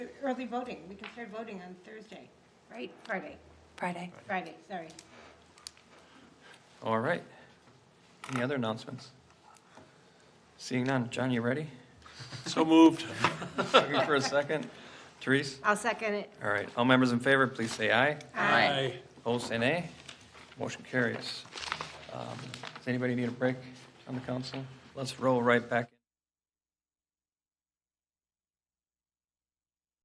early voting, we can start voting on Thursday, right? Friday, Friday. Friday, sorry. All right. Any other announcements? Seeing none. John, you ready? So moved. Looking for a second? Therese? I'll second it. All right. All members in favor, please say aye. Aye. Opposed, say nay. Motion carries. Um, Does anybody need a break on the council? Let's roll right back